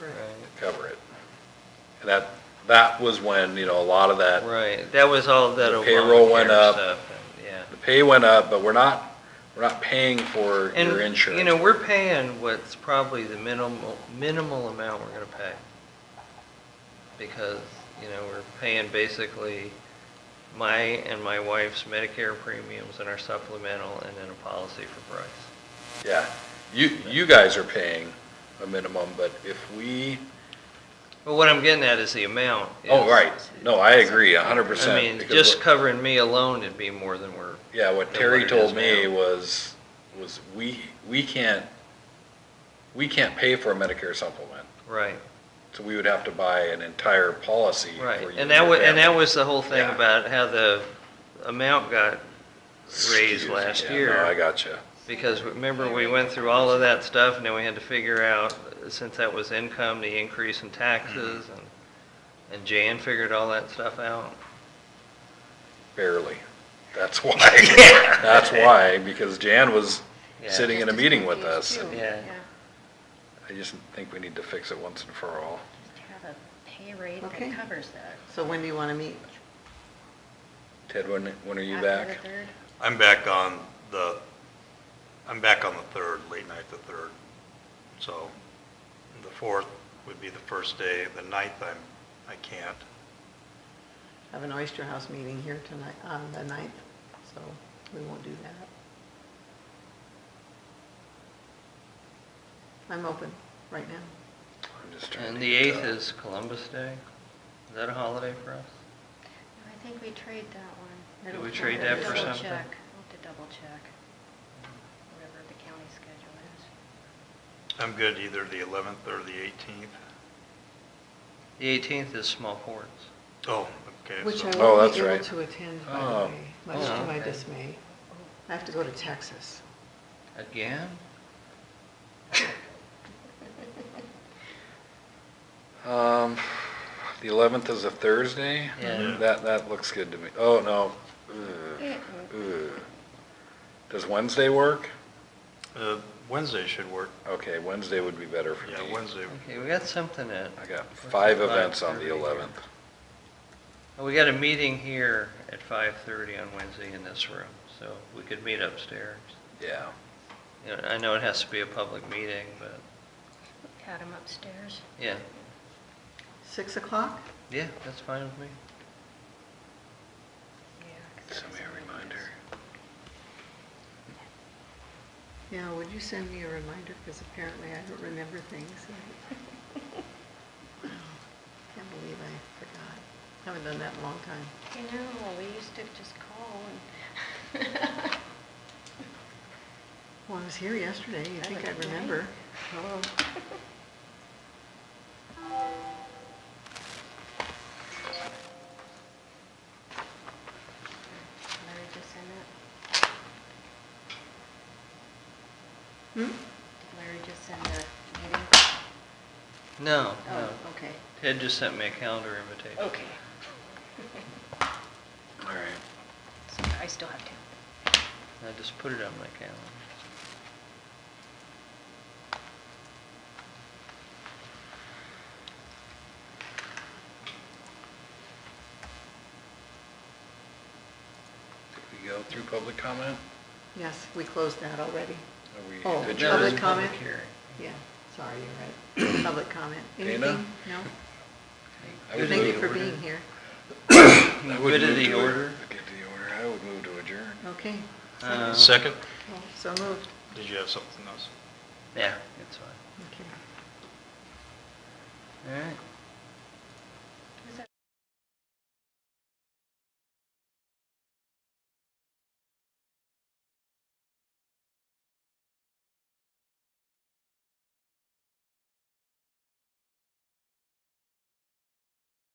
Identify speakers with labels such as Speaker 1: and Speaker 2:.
Speaker 1: Right,
Speaker 2: cover it. And that, that was when, you know, a lot of that,
Speaker 1: right, that was all that
Speaker 2: The payroll
Speaker 1: Obamacare
Speaker 2: went up.
Speaker 1: stuff, yeah.
Speaker 2: the pay went up, but we're not, we're not paying for
Speaker 1: And,
Speaker 2: your insurance.
Speaker 1: You know, we're paying what's probably the minimal, minimal amount we're gonna pay. Because, you know, we're paying basically my and my wife's Medicare premiums and our supplemental and then a policy for Bryce.
Speaker 2: Yeah, you, you guys are paying a minimum, but if we,
Speaker 1: But what I'm getting at is the amount.
Speaker 2: oh,
Speaker 1: is-
Speaker 2: right, no, I agree a hundred percent.
Speaker 1: I mean,
Speaker 2: because
Speaker 1: just
Speaker 2: what-
Speaker 1: covering me alone, it'd be more than we're,
Speaker 2: Yeah, what
Speaker 1: than
Speaker 2: Terry
Speaker 1: what it is
Speaker 2: told me
Speaker 1: now.
Speaker 2: was, was we, we can't, we can't pay for a Medicare supplement,
Speaker 1: right,
Speaker 2: so we would have to buy an entire policy. for
Speaker 1: right.
Speaker 2: you
Speaker 1: And that
Speaker 2: your
Speaker 1: was, and that
Speaker 2: family.
Speaker 1: was the whole thing
Speaker 2: Yeah.
Speaker 1: about how the amount got raised
Speaker 2: Excuse-
Speaker 1: last
Speaker 2: yeah,
Speaker 1: year.
Speaker 2: No, I gotcha.
Speaker 1: Because remember, we went through all of that stuff, and then we had to figure out, since that was income, the increase in taxes,
Speaker 2: Mm-hmm.
Speaker 1: and, and Jan figured all that stuff out.
Speaker 2: Barely. That's why. That's why, because Jan was
Speaker 1: Yeah.
Speaker 2: sitting in a meeting with us.
Speaker 1: too.
Speaker 2: and
Speaker 1: Yeah.
Speaker 2: I just think we need to fix it once and for all.
Speaker 3: Just have a pay rate
Speaker 4: Okay.
Speaker 3: that covers that.
Speaker 4: So when do you want to meet?
Speaker 2: Ted, when, when are you
Speaker 3: After
Speaker 2: back?
Speaker 3: the third,
Speaker 5: I'm back on the, I'm back on the third, late night the third. So the fourth would be the first day, the ninth I'm, I can't.
Speaker 4: Have an Oyster House meeting here tonight, on the 9th, so we won't do that. I'm open right now.
Speaker 2: I'm just trying
Speaker 1: And
Speaker 2: to
Speaker 1: the
Speaker 2: get,
Speaker 1: 8th
Speaker 2: uh,
Speaker 1: is Columbus Day. Is that a holiday for us?
Speaker 3: No, I think we trade that one.
Speaker 1: Did
Speaker 3: I'll
Speaker 1: we
Speaker 3: have
Speaker 1: trade
Speaker 3: to
Speaker 1: that for
Speaker 3: double
Speaker 1: something?
Speaker 3: check. I'll have to double check, whatever the county schedule is.
Speaker 5: I'm good either the eleventh or the eighteenth.
Speaker 1: The 18th is small ports.
Speaker 5: Oh, okay.
Speaker 4: Which
Speaker 5: so-
Speaker 4: I
Speaker 2: Oh,
Speaker 4: won't
Speaker 2: that's
Speaker 4: be able
Speaker 2: right.
Speaker 4: to attend, by the
Speaker 2: Oh.
Speaker 4: way, much to
Speaker 1: Oh,
Speaker 4: my
Speaker 1: okay.
Speaker 4: dismay. I have to go to Texas.
Speaker 1: Again?
Speaker 2: Um, the eleventh is a Thursday? Mm-hmm.
Speaker 1: Yeah.
Speaker 2: That, that looks good to me. Oh, no. Ugh.
Speaker 3: Mm-mm.
Speaker 2: Ugh. Does Wednesday work?
Speaker 5: Uh, Wednesday should work.
Speaker 2: Okay, Wednesday would be better for me.
Speaker 5: Yeah, Wednesday.
Speaker 1: Okay, we got something at,
Speaker 2: I got five events on the eleventh.
Speaker 1: oh, we got a meeting here at 5:30 on Wednesday in this room, so we could meet upstairs.
Speaker 2: Yeah.
Speaker 1: You know, I know it has to be a public meeting, but,
Speaker 3: Had them upstairs.
Speaker 1: yeah,
Speaker 4: 6 o'clock?
Speaker 1: yeah, that's fine with me.
Speaker 3: Yeah. 'cause
Speaker 2: Send me
Speaker 3: that's
Speaker 2: a
Speaker 3: when it
Speaker 2: reminder.
Speaker 3: is.
Speaker 4: Yeah, would you send me a reminder, because apparently I don't remember things. Can't believe I forgot. Haven't done that in a long time.
Speaker 3: You know, we used to just call and.
Speaker 4: Well, I was here yesterday, you think
Speaker 3: Haven't
Speaker 4: I'd
Speaker 3: done
Speaker 4: remember.
Speaker 3: Larry just send that,
Speaker 4: Hmm?
Speaker 3: did Larry just send that meeting?
Speaker 1: No, no.
Speaker 3: Oh, okay,
Speaker 1: Ted just sent me a calendar invitation.
Speaker 3: okay.
Speaker 2: All right.
Speaker 3: So I still have to.
Speaker 1: I just put it on my calendar.
Speaker 2: Did we go through public comment?
Speaker 4: Yes, we closed that already.
Speaker 2: Are we
Speaker 4: Oh,
Speaker 2: adjourned?
Speaker 1: That was
Speaker 4: public comment?
Speaker 1: public hearing.
Speaker 4: Yeah, sorry, you're right. Public comment.
Speaker 2: Dana?
Speaker 4: Anything? No?
Speaker 2: I would
Speaker 4: Thank you
Speaker 2: move
Speaker 4: for
Speaker 2: to
Speaker 4: being
Speaker 2: adjourn.
Speaker 4: here.
Speaker 2: I would
Speaker 1: Good of
Speaker 2: move
Speaker 1: the
Speaker 2: to-
Speaker 1: order.
Speaker 2: Good of the order. I would move to adjourn.
Speaker 4: Okay, Uh,
Speaker 1: Um,
Speaker 5: Second,
Speaker 4: well, so moved.
Speaker 5: did you have something else?
Speaker 1: Yeah, it's fine.
Speaker 4: Okay.
Speaker 1: All right.